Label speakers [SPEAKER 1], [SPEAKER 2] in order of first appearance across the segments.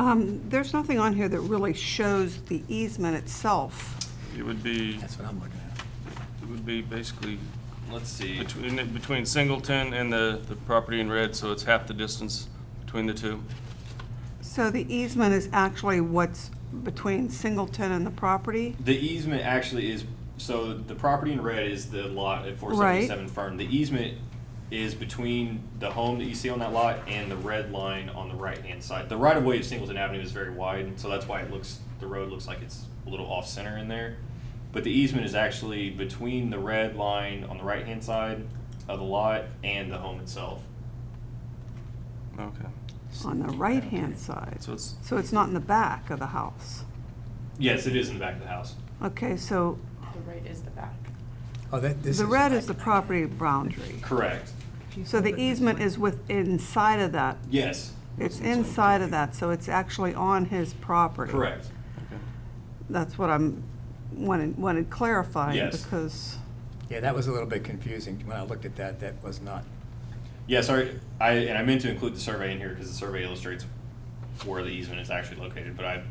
[SPEAKER 1] Um, There's nothing on here that really shows the easement itself.
[SPEAKER 2] It would be,
[SPEAKER 3] That's what I'm looking at.
[SPEAKER 2] it would be basically
[SPEAKER 4] Let's see.
[SPEAKER 2] between, between Singleton and the, the property in red, so it's half the distance between the two.
[SPEAKER 1] So the easement is actually what's between Singleton and the property?
[SPEAKER 4] The easement actually is, so the property in red is the lot at four seventy-seven Fern. The easement is between the home that you see on that lot and the red line on the right-hand side. The right-of-way of Singleton Avenue is very wide, and so that's why it looks, the road looks like it's a little off-center in there. But the easement is actually between the red line on the right-hand side of the lot and the home itself.
[SPEAKER 2] Okay.
[SPEAKER 1] On the right-hand side.
[SPEAKER 2] So it's-
[SPEAKER 1] So it's not in the back of the house.
[SPEAKER 4] Yes, it is in the back of the house.
[SPEAKER 1] Okay, so
[SPEAKER 5] The right is the back.
[SPEAKER 3] Oh, that, this is.
[SPEAKER 1] the red is the property boundary.
[SPEAKER 4] Correct.
[SPEAKER 1] So the easement is with, inside of that.
[SPEAKER 4] Yes,
[SPEAKER 1] It's inside of that, so it's actually on his property.
[SPEAKER 4] correct.
[SPEAKER 1] That's what I'm, wanted, wanted clarified
[SPEAKER 4] Yes.
[SPEAKER 1] because,
[SPEAKER 3] Yeah, that was a little bit confusing. When I looked at that, that was not,
[SPEAKER 4] Yeah, sorry, I, and I meant to include the survey in here because the survey illustrates where the easement is actually located, but I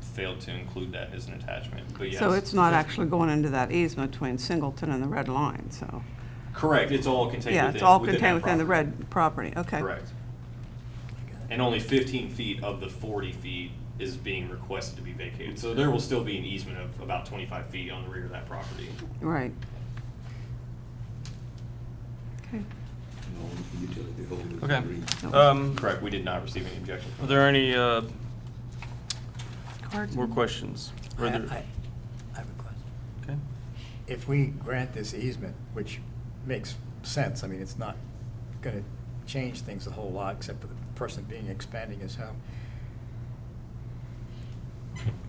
[SPEAKER 4] failed to include that as an attachment, but yes.
[SPEAKER 1] so it's not actually going into that easement between Singleton and the red line, so.
[SPEAKER 4] Correct, it's all contained within.
[SPEAKER 1] Yeah, it's all
[SPEAKER 4] within that
[SPEAKER 1] contained within the
[SPEAKER 4] property.
[SPEAKER 1] red property, okay.
[SPEAKER 4] Correct. And only fifteen feet of the forty feet is being requested to be vacated, so there will still be an easement of about twenty-five feet on the rear of that property.
[SPEAKER 1] Right. Okay,
[SPEAKER 2] Okay.
[SPEAKER 1] That was-
[SPEAKER 2] Um,
[SPEAKER 4] Correct, we did not receive any objection.
[SPEAKER 2] are there any, uh,
[SPEAKER 1] cards.
[SPEAKER 2] more questions?
[SPEAKER 3] I,
[SPEAKER 2] Are
[SPEAKER 3] I,
[SPEAKER 2] there-
[SPEAKER 3] I have a question.
[SPEAKER 2] Okay.
[SPEAKER 3] If we grant this easement, which makes sense, I mean, it's not gonna change things a whole lot, except for the person being expanding his home.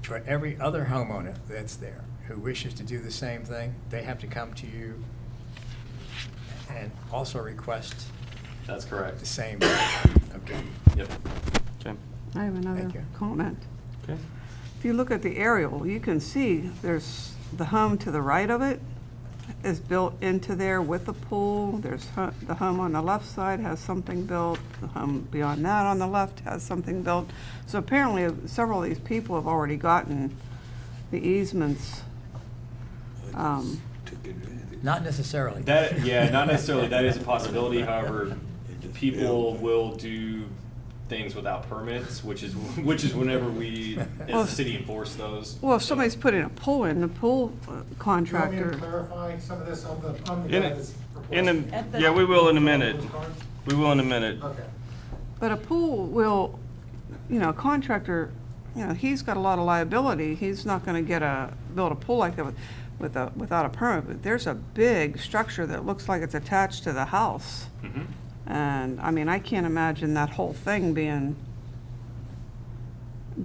[SPEAKER 3] For every other homeowner that's there who wishes to do the same thing, they have to come to you and also request
[SPEAKER 4] That's
[SPEAKER 3] the
[SPEAKER 4] correct.
[SPEAKER 3] same, okay,
[SPEAKER 4] Yep.
[SPEAKER 2] Okay,
[SPEAKER 1] I have another
[SPEAKER 3] Thank you.
[SPEAKER 1] comment.
[SPEAKER 2] okay.
[SPEAKER 1] If you look at the aerial, you can see there's, the home to the right of it is built into there with the pool. There's, hu- the home on the left side has something built, the home beyond that on the left has something built. So apparently several of these people have already gotten the easements. Um,
[SPEAKER 3] not necessarily.
[SPEAKER 4] That, yeah, not necessarily. That is a possibility. However, people will do things without permits, which is which is whenever we,
[SPEAKER 1] Well,
[SPEAKER 4] as a city, enforce those.
[SPEAKER 1] Well, if somebody's putting a pool in, the pool uh,
[SPEAKER 6] Do you want me to
[SPEAKER 1] contractor,
[SPEAKER 6] clarify some of this on the, on the
[SPEAKER 2] In
[SPEAKER 6] guy
[SPEAKER 2] a-
[SPEAKER 6] that's
[SPEAKER 2] In
[SPEAKER 6] proposing?
[SPEAKER 2] a, yeah, we will in a minute. We will in a minute.
[SPEAKER 6] Okay.
[SPEAKER 1] but a pool will, you know, a contractor, you know, he's got a lot of liability. He's not gonna get a, build a pool like that with, with a, without a permit. But there's a big structure that looks like it's attached to the house.
[SPEAKER 4] Mhm.
[SPEAKER 1] And, I mean, I can't imagine that whole thing being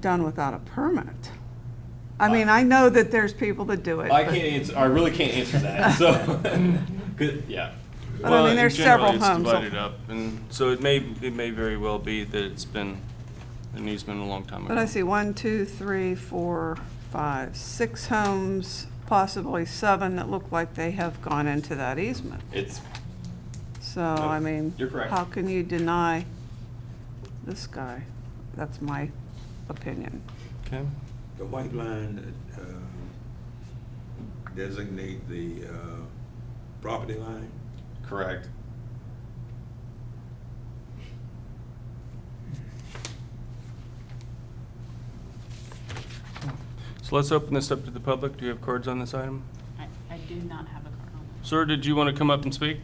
[SPEAKER 1] done without a permit. I mean, I know that there's people that do it.
[SPEAKER 4] I
[SPEAKER 1] but-
[SPEAKER 4] can't answer. I really can't answer that. So, 'Cause- yeah.
[SPEAKER 1] But I
[SPEAKER 2] Well,
[SPEAKER 1] mean,
[SPEAKER 2] in
[SPEAKER 1] there's
[SPEAKER 2] general,
[SPEAKER 1] several homes.
[SPEAKER 2] It's divided up, and so it may, it may very well be that it's been an easement a long time ago.
[SPEAKER 1] But I see one, two, three, four, five, six homes, possibly seven that look like they have gone into that easement.
[SPEAKER 4] It's
[SPEAKER 1] So, I mean.
[SPEAKER 4] You're correct.
[SPEAKER 1] How can you deny this guy? That's my opinion.
[SPEAKER 2] Okay,
[SPEAKER 7] The white line uh, designate the uh, property line?
[SPEAKER 4] correct.
[SPEAKER 2] so let's open this up to the public. Do you have cards on this item?
[SPEAKER 5] I, I do not have a card on.
[SPEAKER 2] Sir, did you want to come up and speak?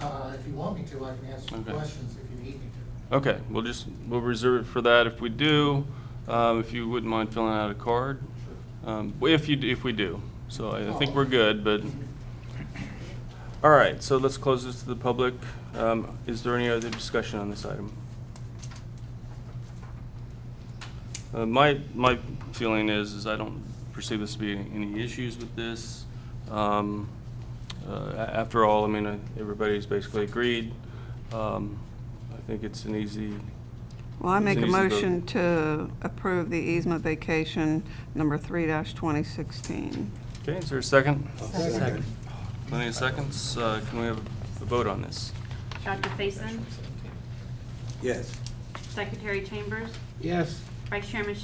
[SPEAKER 6] Uh, if you want me to, I can answer
[SPEAKER 2] Okay.
[SPEAKER 6] questions if you need me to.
[SPEAKER 2] Okay, we'll just, we'll reserve it for that if we do. Um, If you wouldn't mind filling out a card. Um, If you, if we do. So I I think we're good, but, all right, so let's close this to the public. Um, Is there any other discussion on this item? Uh, My, my feeling is, is I don't perceive this to be any- any issues with this. Um, uh, a- After all, I mean, uh, everybody's basically agreed. Um, I think it's an easy,
[SPEAKER 1] Well, I make a
[SPEAKER 2] Please vote.
[SPEAKER 1] motion to approve the easement vacation number three dash twenty sixteen.
[SPEAKER 2] okay, is there a second?
[SPEAKER 3] Second.
[SPEAKER 2] Plenty of seconds, Uh, can we have a vote on this?
[SPEAKER 5] Dr. Faison,
[SPEAKER 7] Yes.
[SPEAKER 5] Secretary Chambers,
[SPEAKER 6] Yes.
[SPEAKER 5] Vice Chairman